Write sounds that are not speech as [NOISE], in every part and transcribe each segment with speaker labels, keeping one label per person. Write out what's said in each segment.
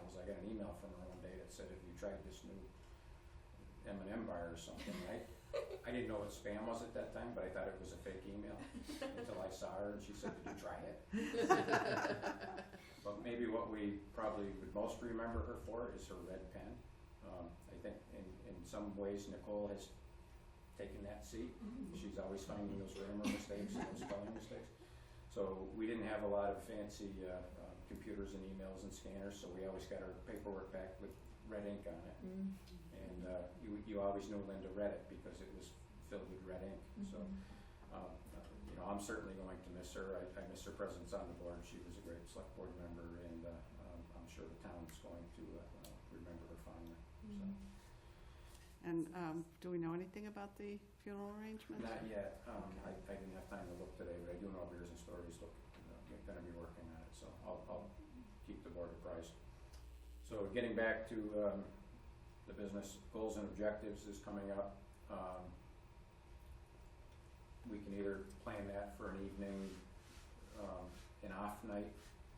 Speaker 1: off on her one day that said, have you tried this new M and M bar or something, right? I didn't know what spam was at that time, but I thought it was a fake email until I saw her and she said, did you try it? But maybe what we probably would most remember her for is her red pen. Um, I think in, in some ways Nicole has taken that seat. She's always finding those grammar mistakes and those spelling mistakes. So we didn't have a lot of fancy uh, uh, computers and emails and scanners, so we always got our paperwork back with red ink on it. And uh, you, you always knew Linda read it because it was filled with red ink. So, um, you know, I'm certainly going to miss her. I, I miss her presence on the board. She was a great select board member, and uh, um, I'm sure the town's going to uh, uh, remember her fondly. So.
Speaker 2: And um, do we know anything about the funeral arrangements?
Speaker 1: Not yet. Um, I, I didn't have time to look today, but I do know Beers and Stories look, uh, gonna be working on it, so I'll, I'll keep the board apprised. So getting back to, um, the business goals and objectives is coming up. Um, we can either plan that for an evening, um, an off night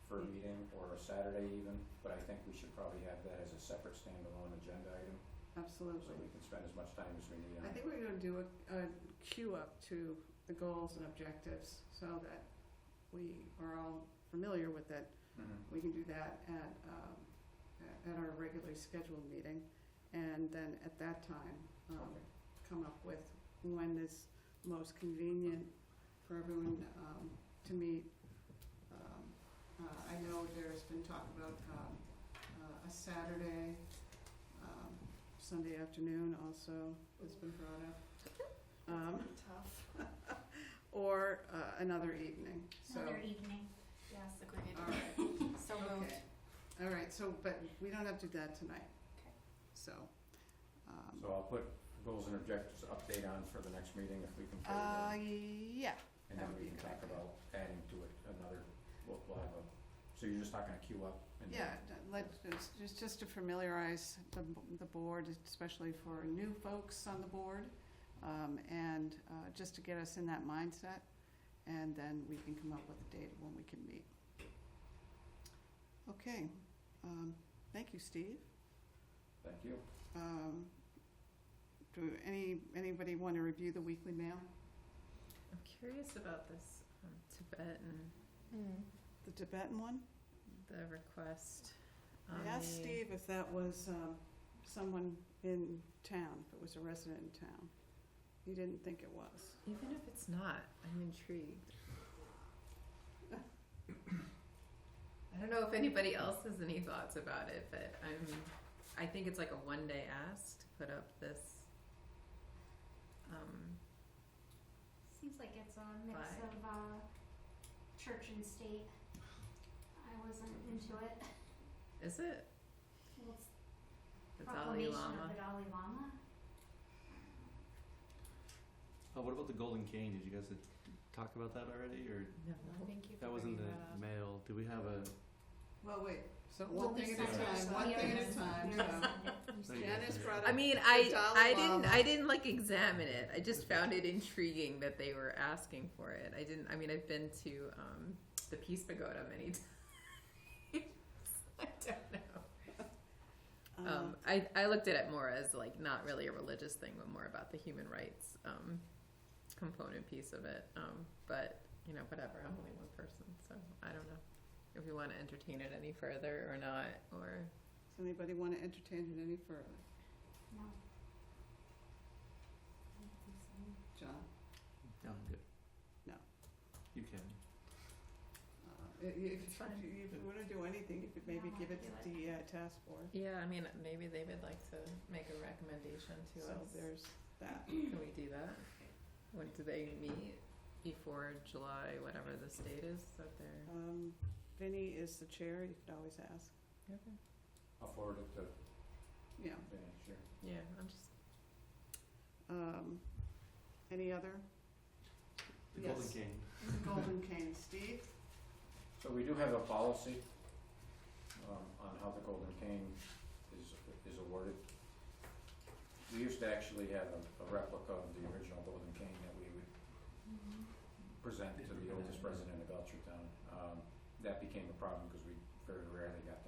Speaker 1: for a meeting or a Saturday even, but I think we should probably have that as a separate standalone agenda item, so
Speaker 2: Absolutely.
Speaker 1: we can spend as much time as we need on it.
Speaker 2: I think we're gonna do a, a queue up to the goals and objectives so that we are all familiar with it.
Speaker 1: Mhm.
Speaker 2: We can do that at, um, a- at our regularly scheduled meeting. And then at that time, um,
Speaker 1: Okay.
Speaker 2: come up with when is most convenient for everyone um, to meet. Um, uh, I know there's been talk about um, uh, a Saturday, um, Sunday afternoon also has been brought up. Um, [LAUGHS]
Speaker 3: Tough.
Speaker 2: Or uh, another evening, so.
Speaker 4: Another evening, yes.
Speaker 2: All right,
Speaker 3: So moved.
Speaker 2: okay. All right, so, but we don't have to do that tonight.
Speaker 3: Okay.
Speaker 2: So. um,
Speaker 1: So I'll put goals and objectives update on for the next meeting if we can. figure it
Speaker 2: Uh,
Speaker 1: out.
Speaker 2: yeah,
Speaker 1: And
Speaker 2: that
Speaker 1: then
Speaker 2: would
Speaker 1: we
Speaker 2: be
Speaker 1: can
Speaker 2: a good
Speaker 1: talk
Speaker 2: idea.
Speaker 1: about adding to it another, we'll, we'll have a, so you're just not gonna queue up? and-
Speaker 2: Yeah, d- let, it's just, just to familiarize the, b- the board, especially for new folks on the board, um, and, uh, just to get us in that mindset, and then we can come up with a date when we can meet. Okay, um, thank you, Steve.
Speaker 1: Thank you.
Speaker 2: Um, do any, anybody want to review the weekly mail,
Speaker 3: I'm curious about this um, Tibetan, Hmm.
Speaker 2: the Tibetan one?
Speaker 3: the request. on
Speaker 2: I asked
Speaker 3: the-
Speaker 2: Steve if that was, um, someone in town, if it was a resident in town. He didn't think it was.
Speaker 3: Even if it's not, I'm intrigued. I don't know if anybody else has any thoughts about it, but I'm, I think it's like a one day ask to put up this, um,
Speaker 4: Seems like it's a mix
Speaker 3: Bye.
Speaker 4: of uh, church and state. I wasn't into it.
Speaker 3: is it?
Speaker 4: Well, it's
Speaker 3: The Dalai
Speaker 4: proclamation of
Speaker 3: Lama?
Speaker 4: the Dalai Lama.
Speaker 5: Oh, what about the golden cane? Did you guys talk about that already, or
Speaker 3: No.
Speaker 5: that was in the mail? Do we have a?
Speaker 2: Well, wait, so
Speaker 4: Well,
Speaker 2: one thing at
Speaker 4: there's
Speaker 2: a
Speaker 4: Sunday.
Speaker 2: time, one
Speaker 4: Yeah,
Speaker 2: thing at a
Speaker 4: there's-
Speaker 2: time,
Speaker 4: [LAUGHS] there's
Speaker 2: so.
Speaker 4: Sunday.
Speaker 2: Janice brought
Speaker 3: I
Speaker 2: up-
Speaker 3: mean,
Speaker 2: The
Speaker 3: I
Speaker 2: Dalai
Speaker 3: I didn't
Speaker 2: Lama.
Speaker 3: I didn't like examine it. I just found it intriguing that they were asking for it. I didn't. I mean, I've been to um, the Peace Pagoda many [LAUGHS] times. I don't know. Um, I I looked at it more as like not really a religious thing, but more about the human rights um, component piece of it. Um, but you know, whatever. I'm only one person, so I don't know if we want to entertain it any further or not. Or
Speaker 2: Does anybody want to entertain it any further?
Speaker 4: No. I don't think so.
Speaker 2: John,
Speaker 5: No, I'm good.
Speaker 2: No.
Speaker 5: You can.
Speaker 2: uh, i- if,
Speaker 3: It's
Speaker 2: if
Speaker 3: fine.
Speaker 2: you want to do anything, you could maybe
Speaker 4: No,
Speaker 2: give it
Speaker 4: I'll
Speaker 2: to
Speaker 4: do
Speaker 2: the uh, task force.
Speaker 3: yeah, I mean, maybe they would like to make a recommendation to
Speaker 2: So
Speaker 3: us.
Speaker 2: there's that.
Speaker 3: Can we do that? When do they meet? Before July, whatever this date is that they're.
Speaker 2: Um, Vinny is the chair, you could always ask,
Speaker 1: I'll forward it to
Speaker 2: yeah.
Speaker 1: Vinnie, sure.
Speaker 3: Yeah, I'm just.
Speaker 2: Um, any other?
Speaker 5: The
Speaker 2: Yes.
Speaker 5: golden cane.
Speaker 2: Golden cane, Steve?
Speaker 1: So we do have a policy um, on how the Golden Cane is, is awarded. We used to actually have a a replica of the original Golden Cane that we would
Speaker 4: Mm-hmm.
Speaker 1: present to the oldest president of Belchertown. Um, That became a problem because we very rarely got